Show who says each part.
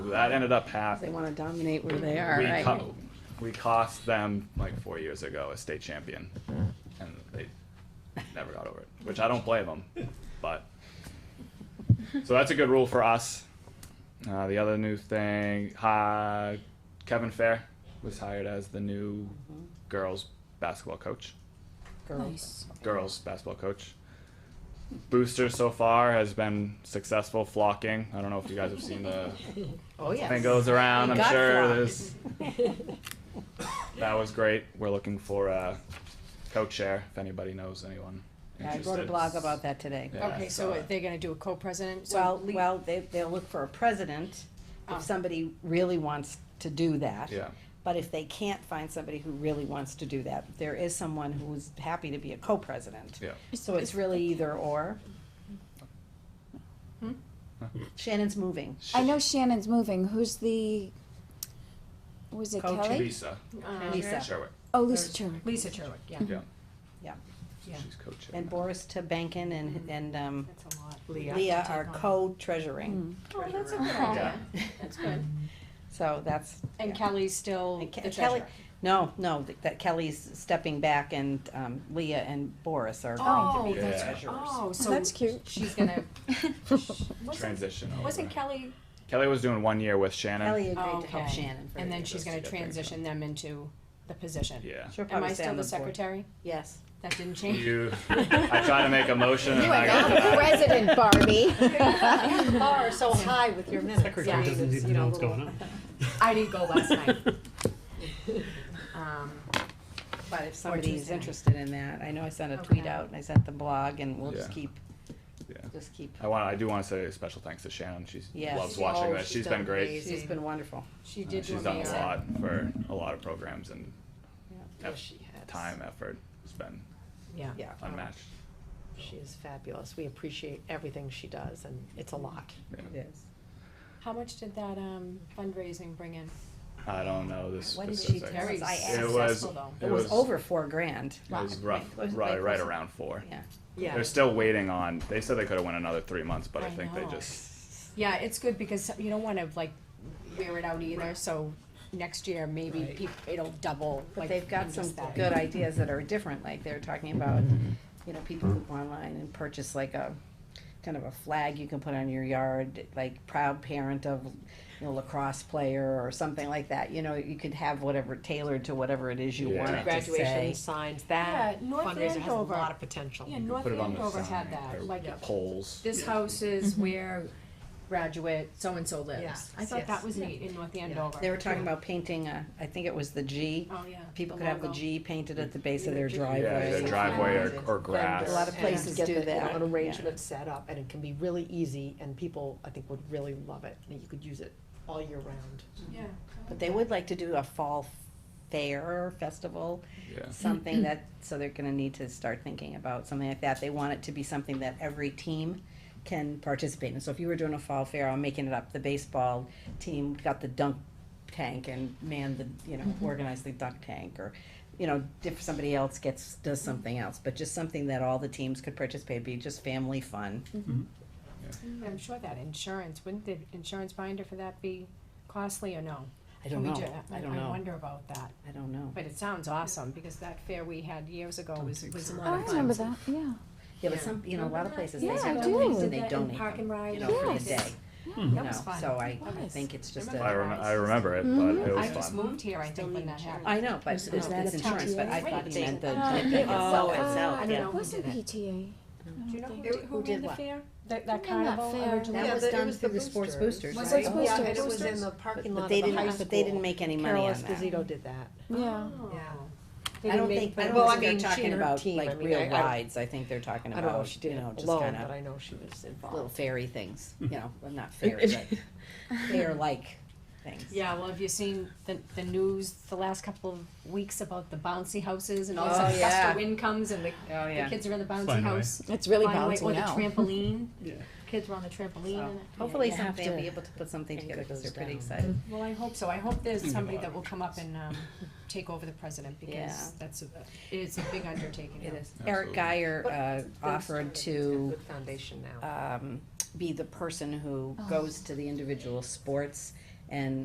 Speaker 1: that ended up
Speaker 2: They
Speaker 1: happening.
Speaker 2: want to dominate where they are,
Speaker 1: we,
Speaker 2: right?
Speaker 1: co- we cost them like four years ago a state champion, and they never got over it, which I don't blame them. But so that's a good rule for us. Uh, the other new thing, uh, Kevin Fair was hired as the new girls basketball coach.
Speaker 2: Girls.
Speaker 1: Girls basketball coach. Booster so far has been successful flocking. I don't know if you guys have seen the
Speaker 3: Oh, yes.
Speaker 1: thing goes around.
Speaker 2: We
Speaker 1: I'm
Speaker 2: got
Speaker 1: sure
Speaker 2: flocked.
Speaker 1: there's that was great. We're looking for a co-chair if anybody knows anyone.
Speaker 2: I
Speaker 1: Interested.
Speaker 2: wrote a blog about that today.
Speaker 1: Yeah, I
Speaker 3: Okay,
Speaker 1: saw
Speaker 3: so what,
Speaker 1: it.
Speaker 3: they're gonna do a co-president, so.
Speaker 2: Well,
Speaker 3: Lee-
Speaker 2: well, they, they'll look for a president
Speaker 3: Oh.
Speaker 2: if somebody really wants to do that.
Speaker 1: Yeah.
Speaker 2: But if they can't find somebody who really wants to do that, there is someone who's happy to be a co-president.
Speaker 1: Yeah.
Speaker 2: So it's really either or. Shannon's moving.
Speaker 4: I know Shannon's moving. Who's the? Was it
Speaker 2: Coach
Speaker 4: Kelly?
Speaker 1: Lisa
Speaker 3: um,
Speaker 2: Lisa.
Speaker 1: Sherwick.
Speaker 4: Oh, Lisa Turner.
Speaker 3: Lisa Cherwick, yeah.
Speaker 1: Yeah.
Speaker 2: Yeah.
Speaker 3: Yeah.
Speaker 1: She's co-chair.
Speaker 2: And Boris Tabankin and, and, um,
Speaker 3: That's a lot.
Speaker 2: Leah are co-treasuring.
Speaker 3: Oh, that's a good
Speaker 1: Yeah.
Speaker 3: idea. That's good.
Speaker 2: So that's.
Speaker 3: And
Speaker 2: yeah.
Speaker 3: Kelly's still
Speaker 2: And Ke-
Speaker 3: the
Speaker 2: Kelly,
Speaker 3: treasurer.
Speaker 2: no, no, th- that Kelly's stepping back and, um, Leah and Boris are
Speaker 3: Oh,
Speaker 2: going to be the
Speaker 1: that's-
Speaker 2: treasurers.
Speaker 3: Oh, so.
Speaker 4: That's cute.
Speaker 3: She's gonna. Wasn't,
Speaker 1: Transition. over.
Speaker 3: wasn't Kelly,
Speaker 1: Kelly was doing one year with Shannon.
Speaker 2: Kelly
Speaker 3: Oh,
Speaker 2: agreed to help
Speaker 3: okay.
Speaker 2: Shannon for.
Speaker 3: and then
Speaker 2: the-
Speaker 3: she's gonna
Speaker 1: Yeah, thank you.
Speaker 3: transition them into the position.
Speaker 1: Yeah.
Speaker 2: She'll
Speaker 3: Am
Speaker 2: probably
Speaker 3: I
Speaker 2: stay
Speaker 3: still
Speaker 2: on
Speaker 3: the
Speaker 2: board.
Speaker 3: secretary?
Speaker 2: Yes.
Speaker 3: That didn't change?
Speaker 1: You, I tried to make a motion and
Speaker 4: You
Speaker 1: I
Speaker 4: are
Speaker 1: got
Speaker 4: now the
Speaker 1: denied.
Speaker 4: president, Barbie.
Speaker 3: You are so high.
Speaker 2: with your minutes.
Speaker 3: Yeah.
Speaker 5: Secretary doesn't even know what's going on.
Speaker 3: I didn't go last night. Um,
Speaker 2: But if somebody is
Speaker 3: Tuesday night.
Speaker 2: interested in that, I know I sent a tweet
Speaker 3: Okay.
Speaker 2: out and I sent the blog and we'll just
Speaker 1: Yeah.
Speaker 2: keep,
Speaker 1: Yeah.
Speaker 2: just keep,
Speaker 1: I want. I do want to say a special thanks to Shannon. She
Speaker 2: Yes.
Speaker 1: loves
Speaker 2: She-
Speaker 1: watching
Speaker 3: oh,
Speaker 1: this.
Speaker 3: she's
Speaker 1: she's been
Speaker 3: done
Speaker 1: great.
Speaker 3: amazing.
Speaker 2: she's been wonderful.
Speaker 3: She
Speaker 1: Uh,
Speaker 3: did do
Speaker 1: she's done a
Speaker 3: amazing.
Speaker 1: lot for a lot of programs and
Speaker 6: Yes, she has.
Speaker 1: time, effort. It's been
Speaker 6: Yeah,
Speaker 2: Yeah.
Speaker 1: unmatched.
Speaker 6: she is fabulous. We appreciate everything she does, and it's a lot.
Speaker 2: It is.
Speaker 3: How much did that um, fundraising bring in?
Speaker 1: I don't know this.
Speaker 2: What did she
Speaker 1: specifics.
Speaker 2: tell us? I asked.
Speaker 1: It was.
Speaker 3: Successful,
Speaker 2: It was over four grand.
Speaker 1: It was rough,
Speaker 2: Right.
Speaker 1: right, right
Speaker 2: Right.
Speaker 1: around four.
Speaker 2: Yeah.
Speaker 6: Yeah,
Speaker 1: They're still waiting on. They said they could have went another three months, but I,
Speaker 3: I
Speaker 1: think they
Speaker 3: know.
Speaker 1: just.
Speaker 3: Yeah, it's good because you don't want to like wear it out either. So next year maybe peop it'll double.
Speaker 2: But
Speaker 3: like,
Speaker 2: they've got
Speaker 3: in
Speaker 2: some
Speaker 3: just that.
Speaker 2: good ideas that are different, like they're talking about,
Speaker 1: Mm-hmm.
Speaker 2: you know, people who go online and purchase like a, kind of a flag you can put on your yard, like proud parent of, you know, lacrosse player or something like that, you know, you could have whatever tailored to whatever it is you
Speaker 1: Yeah.
Speaker 2: want it to
Speaker 6: graduation
Speaker 2: say.
Speaker 6: signs, that
Speaker 3: Yeah, North
Speaker 6: fundraiser has a
Speaker 3: Andover.
Speaker 6: lot of potential.
Speaker 3: Yeah, North
Speaker 1: Put it on the
Speaker 3: Andover
Speaker 1: sign
Speaker 3: had that.
Speaker 1: or
Speaker 3: Like
Speaker 1: poles.
Speaker 3: this house is where graduate so and so lives.
Speaker 6: Yes,
Speaker 3: Mm-hmm. I thought that
Speaker 6: yes.
Speaker 3: was neat in North Andover.
Speaker 2: They were talking about painting a, I think it was the G,
Speaker 3: Oh yeah.
Speaker 2: people could have the
Speaker 3: logo.
Speaker 2: G painted at the base of their
Speaker 1: Yeah,
Speaker 2: driveway.
Speaker 1: their driveway or, or grass.
Speaker 2: A lot of
Speaker 6: And
Speaker 2: places
Speaker 6: get
Speaker 2: do
Speaker 6: the- you know,
Speaker 2: that,
Speaker 6: An
Speaker 2: yeah.
Speaker 6: arrangement set up, and it can be really easy, and people, I think, would really love it, and you could use it all year round.
Speaker 3: Yeah.
Speaker 2: But they would like to do a fall fair or festival,
Speaker 1: yeah.
Speaker 2: something that, so they're gonna need to start thinking about something like that. They want it to be something that every team can participate in. So if you were doing a fall fair, I'm making it up, the baseball team got the dunk tank and manned the, you know, organized the dunk tank or, you know, if somebody else gets, does something else, but just something that all the teams could participate, be just family fun.
Speaker 3: I'm sure that insurance wouldn't the insurance binder for that be costly or no?
Speaker 2: I don't
Speaker 3: We
Speaker 2: know,
Speaker 3: ju-
Speaker 2: I don't
Speaker 3: I
Speaker 2: know,
Speaker 3: wonder about that.
Speaker 2: I don't know.
Speaker 3: But it sounds awesome because that fair we had years ago was was a lot
Speaker 4: Oh, I
Speaker 3: of fun.
Speaker 4: remember that. Yeah.
Speaker 2: Yeah, but some, you know, a lot of places, they
Speaker 4: Yeah, I
Speaker 2: have
Speaker 4: do.
Speaker 2: things and
Speaker 3: Did
Speaker 2: they
Speaker 3: that in
Speaker 2: donate
Speaker 3: Park and
Speaker 2: them,
Speaker 3: Ride
Speaker 2: you know, for the
Speaker 3: and-
Speaker 2: day,
Speaker 3: Yes.
Speaker 2: you know,
Speaker 3: was fun.
Speaker 2: so I I
Speaker 3: Yes.
Speaker 2: think it's just a.
Speaker 3: Remember
Speaker 1: I, rem- I remember it, but it was
Speaker 3: Mm-hmm. I
Speaker 1: fun.
Speaker 3: just moved here, I think, when that happened.
Speaker 2: I know, but it's, it's
Speaker 3: that a
Speaker 2: insurance, but I
Speaker 3: tax?
Speaker 2: thought he
Speaker 3: Wait,
Speaker 2: meant the.
Speaker 4: uh,
Speaker 2: the-
Speaker 4: it
Speaker 2: the-
Speaker 3: was-
Speaker 2: oh,
Speaker 4: uh,
Speaker 3: I don't
Speaker 2: yeah.
Speaker 3: know. Who
Speaker 4: Wasn't
Speaker 3: did it?
Speaker 4: PTA.
Speaker 3: Do you know who,
Speaker 2: Who
Speaker 3: who
Speaker 2: did
Speaker 3: ran the
Speaker 2: what?
Speaker 3: fair? That, that
Speaker 4: ran that
Speaker 3: carnival
Speaker 4: fair?
Speaker 3: originally?
Speaker 2: That
Speaker 6: Yeah,
Speaker 2: was
Speaker 6: the- it
Speaker 2: done
Speaker 6: was
Speaker 2: through
Speaker 6: the
Speaker 2: the sports boosters,
Speaker 6: boosters.
Speaker 3: Was
Speaker 2: right?
Speaker 3: it
Speaker 6: Yeah,
Speaker 3: Boosters.
Speaker 6: and it was in the
Speaker 2: But
Speaker 6: parking lot of
Speaker 2: they
Speaker 6: the high
Speaker 2: didn't-
Speaker 6: school.
Speaker 2: but They didn't make any money
Speaker 6: Carol
Speaker 2: on that.
Speaker 6: Esposito did that.
Speaker 4: Yeah.
Speaker 3: Yeah.
Speaker 2: I don't think, I
Speaker 6: Well, I
Speaker 2: don't think
Speaker 6: mean, she
Speaker 2: they're talking
Speaker 6: and her
Speaker 2: about
Speaker 6: team, I
Speaker 2: like
Speaker 6: mean,
Speaker 2: real
Speaker 6: I- I-
Speaker 2: rides, I think they're talking
Speaker 6: I don't know if she
Speaker 2: about,
Speaker 6: did
Speaker 2: you
Speaker 6: it
Speaker 2: know, just
Speaker 6: alone, but
Speaker 2: kinda
Speaker 6: I know she was
Speaker 2: little
Speaker 6: involved.
Speaker 2: fairy things, you know, well, not fairy, but fair-like things.
Speaker 3: Yeah, well, have you seen the, the news the last couple of weeks about the bouncy houses and all
Speaker 2: Oh,
Speaker 3: this gust
Speaker 2: yeah.
Speaker 3: of wind comes and the,
Speaker 2: Oh,
Speaker 3: the kids are in the bouncy
Speaker 5: Flying away.
Speaker 3: house?
Speaker 4: It's really
Speaker 3: flying away,
Speaker 4: bouncing
Speaker 3: Or the
Speaker 4: now.
Speaker 3: trampoline,
Speaker 5: Yeah.
Speaker 3: kids were on the trampoline and.
Speaker 2: Hopefully
Speaker 3: Yeah.
Speaker 2: someday
Speaker 4: to
Speaker 2: we'll be able to put something
Speaker 6: anchor
Speaker 2: together, cause they're
Speaker 6: those
Speaker 2: pretty
Speaker 6: down.
Speaker 2: excited.
Speaker 3: Well, I hope so, I hope there's
Speaker 5: Think
Speaker 3: somebody
Speaker 5: about
Speaker 3: that will come up and, um, take over the president because
Speaker 2: Yeah.
Speaker 3: that's a, it is a big undertaking.
Speaker 2: It is.
Speaker 1: Absolutely.
Speaker 2: Eric Geyer,
Speaker 6: But
Speaker 2: uh, offered
Speaker 6: Things started.
Speaker 2: to
Speaker 6: It's got Good foundation now.
Speaker 2: um, be the person who goes to the individual sports and